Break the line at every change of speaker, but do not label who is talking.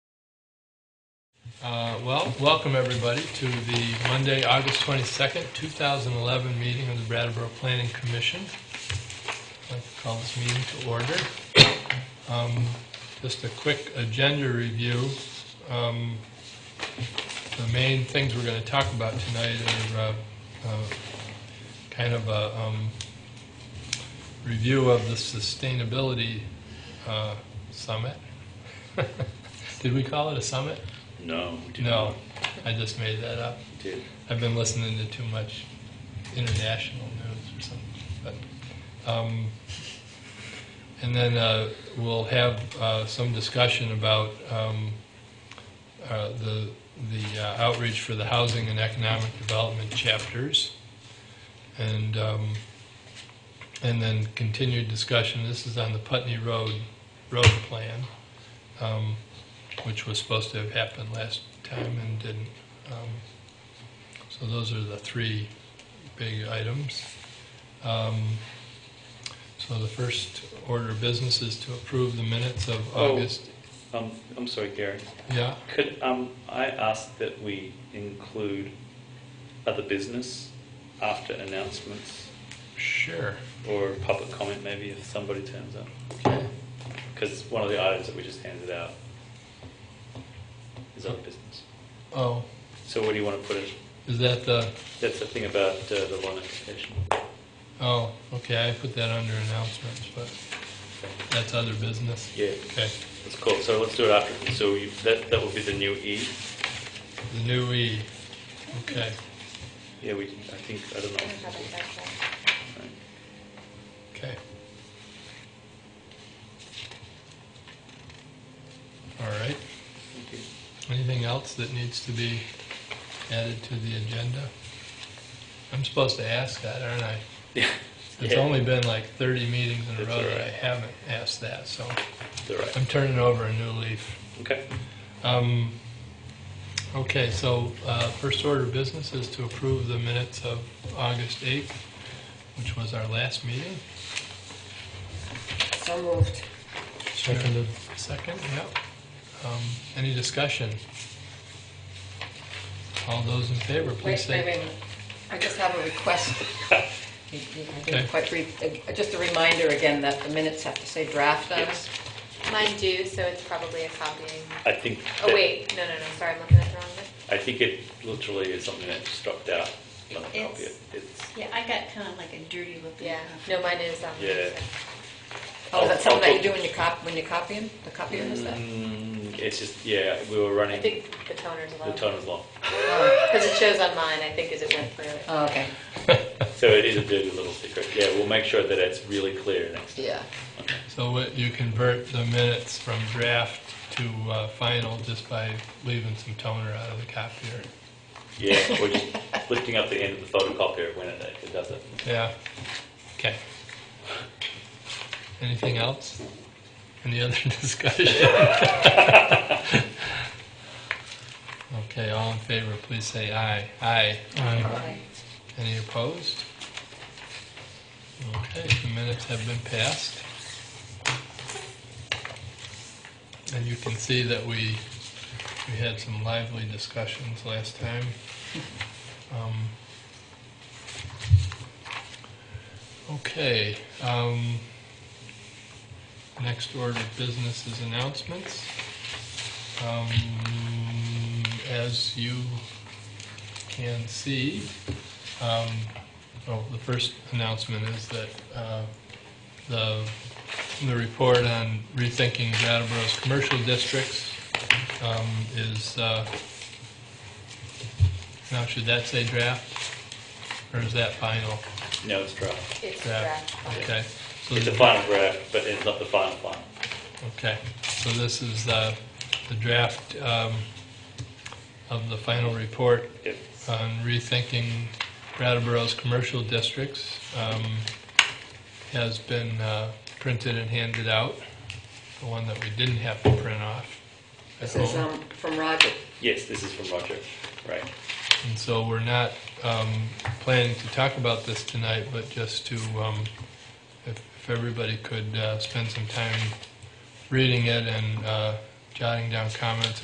Uh, Well, welcome everybody to the Monday, August 22nd, 2011 meeting of the Brattleboro Planning Commission. I'd like to call this meeting to order. Um, Just a quick agenda review. Um, The main things we're going to talk about tonight are uh, uh, kind of a um, review of the Sustainability uh, Summit. Did we call it a summit?
No, we did
No,
not.
I just made that up.
We did.
I've been listening to too much international news or something. But, um, and then uh, we'll have uh, some discussion about um, uh, the the uh, outreach for the housing and economic development chapters, and um, and then continued discussion. This is on the Putney Road road plan, um, which was supposed to have happened last time and didn't. Um, so those are the three big items. Um, So the first order of business is to approve the minutes of
Oh.
August.
Um, I'm sorry, Gary.
Yeah,
Could um, I ask that we include other business after announcements
sure.
or public comment, maybe if somebody turns up?
Okay.
Because it's one of the items that we just handed out is other business.
Oh,
So where do you want to put it?
is that the,
That's the thing about uh, the loan application.
oh, okay, I put that under announcements, but that's other business.
Yeah,
Okay,
that's cool. So let's do it after. So you, that that would be the new E.
the new E, okay,
Yeah, we. I think I don't
I don't have
know.
it back there.
Right.
okay. All right,
Thank you.
anything else that needs to be added to the agenda? I'm supposed to ask that, aren't I?
Yeah.
It's
Yeah.
only been like 30 meetings in a
That's
row
all
that I
right.
haven't asked that, so
All right.
I'm turning over a new leaf.
Okay.
Um, Okay, so uh, first order of business is to approve the minutes of August 8th, which was our last meeting.
So moved.
Seconded. Second, yep. Um, Any discussion? All those in favor, please
Wait, wait,
say.
wait. I just have a request. I
Okay.
didn't quite read, uh, just a reminder again that the minutes have to say draft on it.
Yes.
Mine do, so it's probably a copying.
I think.
Oh
that-
wait, no, no, no. Sorry, I'm looking at the wrong one.
I think it literally is something that just dropped out. Not a copy.
It's-
It's.
Yeah, I got kind of like a dirty looking.
Yeah, no, mine is. Um,
Yeah.
Oh, is
I'll-
that something that
I'll
you do when you copy, when you copy them? The copier is that?
Mm, It's just yeah. We were
I
running.
think the toner's
the
low.
tone was long,
Oh,
Because it shows on mine, I think, as it went through it.
oh, okay.
so it is a dirty little secret. Yeah, we'll make sure that it's really clear next. time.
Yeah.
So what- you convert the minutes from draft to uh, final just by leaving some toner out of the copier.
Yeah, we're just lifting up the end of the photocopier when it, it does it.
Yeah. Okay. Anything else? Any other discussion? Okay, all in favor, please say aye. Aye. Aye. Any opposed? Okay, the minutes have been passed. And you can see that we, we had some lively discussions last time. Um, Okay, um, next order of business is announcements. Um, as you can see, um, oh, the first announcement is that, uh, the, the report on rethinking Brattleboro's commercial districts, um, is, uh, now should that say draft? Or is that final?
No, it's draft.
It's
Draft,
draft.
Okay. So
It's
the-
a final draft, but it's not the final final.
Okay, so this is uh, the draft um, of the final report
Yep.
on rethinking Brattleboro's commercial districts um, has been uh, printed and handed out, the one that we didn't have to print off Oh. at
This is
home.
um, from Roger.
Yes, this is from Roger. Right.
And so we're not um, planning to talk about this tonight, but just to, um, if if everybody could uh, spend some time reading it and uh, jotting down comments